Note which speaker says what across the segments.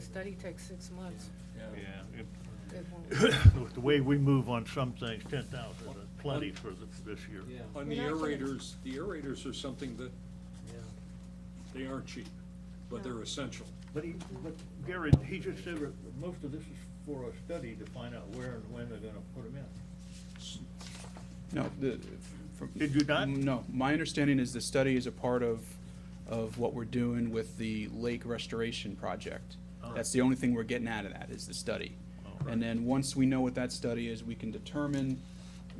Speaker 1: study takes six months.
Speaker 2: Yeah, it-
Speaker 1: It won't-
Speaker 2: with the way we move on some things, ten thousand is plenty for th- this year.
Speaker 3: Yeah.
Speaker 4: On the
Speaker 1: You're not gonna-
Speaker 4: aerators, the aerators are something that, they aren't cheap, but they're essential.
Speaker 2: But he, but Gary, he just said that most of this is for a study to find out where and when they're gonna put them in.
Speaker 5: No, the, from.
Speaker 2: Did you not?
Speaker 5: No, my understanding is the study is a part of, of what we're doing with the lake restoration project.
Speaker 2: Oh.
Speaker 5: That's the only thing we're getting out of that, is the study.
Speaker 2: Oh.
Speaker 5: And then, once we know what that study is, we can determine,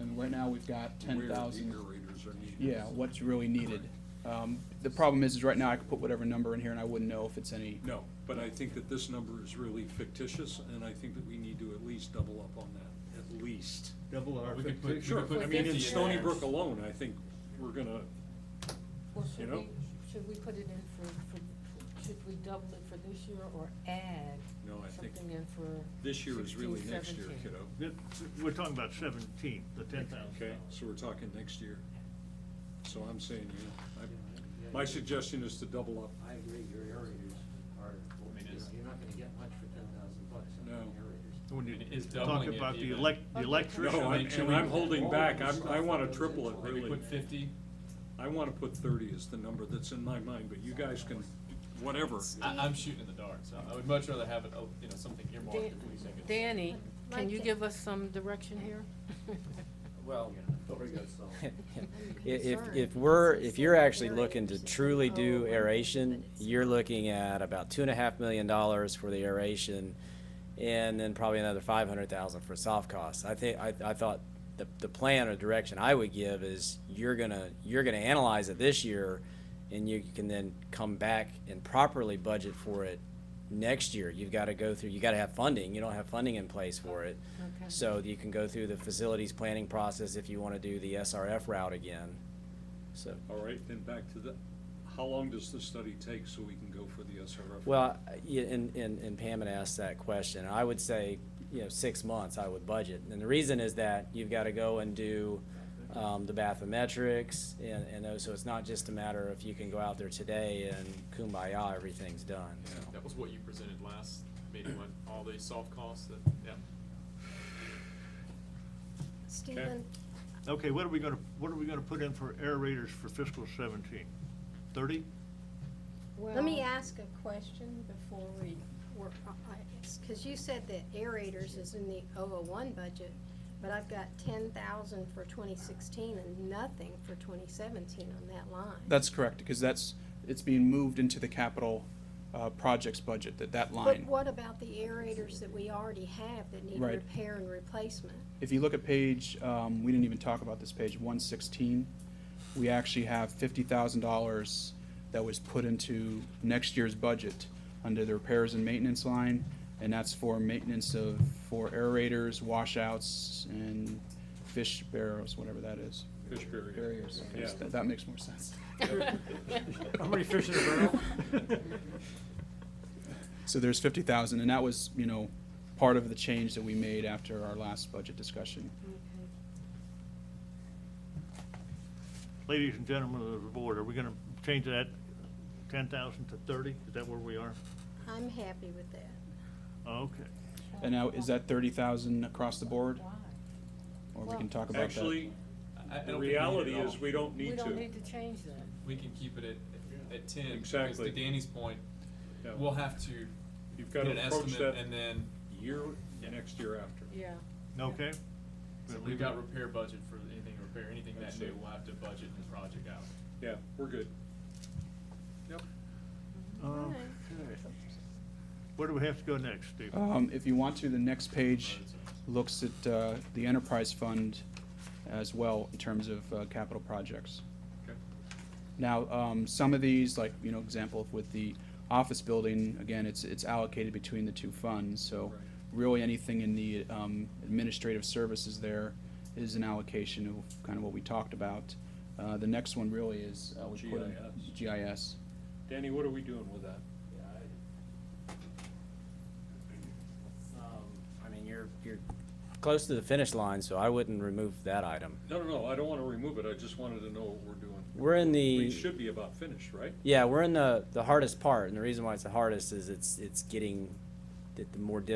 Speaker 5: and right now, we've got ten thousand.
Speaker 4: Where the aerators are needed.
Speaker 5: Yeah, what's really needed. Um, the problem is, is right now, I could put whatever number in here, and I wouldn't know if it's any.
Speaker 4: No, but I think that this number is really fictitious, and I think that we need to at least double up on that, at least.
Speaker 2: Double our
Speaker 6: We could put- we could
Speaker 4: Sure,
Speaker 6: put
Speaker 4: I mean, in
Speaker 6: 50
Speaker 4: Stony
Speaker 6: there.
Speaker 4: Brook alone, I think we're gonna,
Speaker 1: Well,
Speaker 4: You
Speaker 1: should
Speaker 4: know?
Speaker 1: we, should we put it in for, for, should we double it for this year or add
Speaker 4: No, I think
Speaker 1: something in for?
Speaker 4: this year is
Speaker 1: 16,
Speaker 4: really next year,
Speaker 1: 17?
Speaker 4: kiddo.
Speaker 2: Th- We're talking about seventeen, the ten thousand.
Speaker 4: Okay, so we're talking next year. So I'm saying, you know, I, my suggestion is to double up.
Speaker 3: I agree, your aerators are,
Speaker 6: I mean, it's-
Speaker 3: you're not gonna get much for ten thousand bucks on
Speaker 4: No.
Speaker 3: aerators.
Speaker 2: When you
Speaker 6: It is
Speaker 2: talk
Speaker 6: doubling it
Speaker 2: about the
Speaker 6: even.
Speaker 2: elec, the
Speaker 1: Okay.
Speaker 2: electrician.
Speaker 4: No, I'm-
Speaker 6: Should
Speaker 4: and
Speaker 6: we-
Speaker 4: I'm holding back, I'm, I wanna
Speaker 3: Maybe
Speaker 4: triple it,
Speaker 3: put
Speaker 6: Maybe
Speaker 4: really.
Speaker 6: put fifty?
Speaker 4: I wanna put thirty as the number that's in my mind, but you guys can, whatever.
Speaker 6: I, I'm shooting in the dark, so I would much rather have it, oh, you know, something earmarked
Speaker 1: Dan-
Speaker 6: if we think it's.
Speaker 1: Danny, can
Speaker 7: Like
Speaker 1: you
Speaker 7: it.
Speaker 1: give us some direction here?
Speaker 3: Well, over good, so.
Speaker 8: I- If,
Speaker 7: concerned.
Speaker 8: if we're, if you're actually
Speaker 7: Aerators
Speaker 8: looking to
Speaker 7: and-
Speaker 8: truly
Speaker 1: Oh,
Speaker 8: do
Speaker 1: right.
Speaker 8: aeration, you're looking at about two and a half million dollars for the aeration and then probably another five hundred thousand for soft costs. I think, I, I thought the, the plan or direction I would give is you're gonna, you're gonna analyze it this year and you can then come back and properly budget for it next year. You've gotta go through, you gotta have funding. You don't have funding in place for it.
Speaker 1: Okay.
Speaker 8: So you can go through the facilities planning process if you wanna do the SRF route again. So,
Speaker 4: All right, then back to the, how long does the study take so we can go for the SRF?
Speaker 8: well, yeah, and, and, and Pam had asked that question, I would say, you know, six months I would budget. And the reason is that you've gotta go and do, um, the bathymetrics and, and those, so it's not just a matter of you can go out there today and kumbaya, everything's done, so.
Speaker 6: That was what you presented last meeting, when all the soft costs that, yeah.
Speaker 7: Stephen,
Speaker 2: Okay, what are we gonna, what are we gonna put in for aerators for fiscal seventeen? Thirty?
Speaker 7: let me ask a question before we work, because you said that aerators is in the 001 budget, but I've got 10,000 for 2016 and nothing for 2017 on that line.
Speaker 5: That's correct, because that's, it's being moved into the capital, uh, projects budget, that, that line.
Speaker 7: But what about the aerators that we already have that need
Speaker 5: Right.
Speaker 7: repair and replacement?
Speaker 5: If you look at page, um, we didn't even talk about this page, one sixteen, we actually have fifty thousand dollars that was put into next year's budget under the repairs and maintenance line, and that's for maintenance of, for aerators, washouts, and fish barrels, whatever that is.
Speaker 4: Fish barrier.
Speaker 5: Barriers,
Speaker 4: Yeah.
Speaker 5: that, that makes more sense.
Speaker 3: How many fish in a barrel?
Speaker 5: So there's fifty thousand, and that was, you know, part of the change that we made after our last budget discussion.
Speaker 2: Ladies and gentlemen of the board, are we gonna change that ten thousand to thirty? Is that where we are?
Speaker 7: I'm happy with that.
Speaker 2: Okay.
Speaker 5: And now, is that thirty thousand across the board? Or we can talk about that?
Speaker 4: Actually,
Speaker 6: I- I don't
Speaker 4: the
Speaker 6: think we need it
Speaker 4: reality
Speaker 6: at
Speaker 4: is
Speaker 6: all.
Speaker 4: we don't
Speaker 1: We
Speaker 4: need
Speaker 1: don't
Speaker 4: to.
Speaker 1: need to change that.
Speaker 6: We can keep it at, at ten. Because
Speaker 4: Exactly.
Speaker 6: to Danny's point,
Speaker 4: Yeah.
Speaker 6: we'll have to
Speaker 4: You've
Speaker 6: get
Speaker 4: gotta
Speaker 6: an
Speaker 4: approach
Speaker 6: estimate
Speaker 4: that-
Speaker 6: and then
Speaker 4: Year, next year after.
Speaker 1: Yeah.
Speaker 2: Okay?
Speaker 6: so
Speaker 2: We'll
Speaker 6: we've
Speaker 2: leave
Speaker 6: got
Speaker 2: it-
Speaker 6: repair budget for anything repair, anything that
Speaker 4: That's
Speaker 6: new,
Speaker 4: it.
Speaker 6: we'll have to budget and project out.
Speaker 4: Yeah, we're good. Yep.
Speaker 2: Okay. Where do we have to go next, Steve?
Speaker 5: Um, if you want to, the next page looks at, uh, the enterprise fund as well in terms of, uh, capital projects.
Speaker 4: Okay.
Speaker 5: Now, um, some of these, like, you know, example with the office building, again, it's, it's allocated between the two funds, so
Speaker 4: Right.
Speaker 5: really anything in the, um, administrative services there is an allocation of kind of what we talked about. Uh, the next one really is, uh, we put in
Speaker 4: GIS.
Speaker 5: GIS.
Speaker 4: Danny, what are we doing with that?
Speaker 3: Yeah, I-
Speaker 8: I mean, you're, you're close to the finish line, so I wouldn't remove that item.
Speaker 4: No, no, no, I don't wanna remove it, I just wanted to know what we're doing.
Speaker 8: We're in
Speaker 4: We
Speaker 8: the,
Speaker 4: should be about finished, right?
Speaker 8: yeah, we're in the, the hardest part, and the reason why it's the hardest is it's, it's getting that the more difficult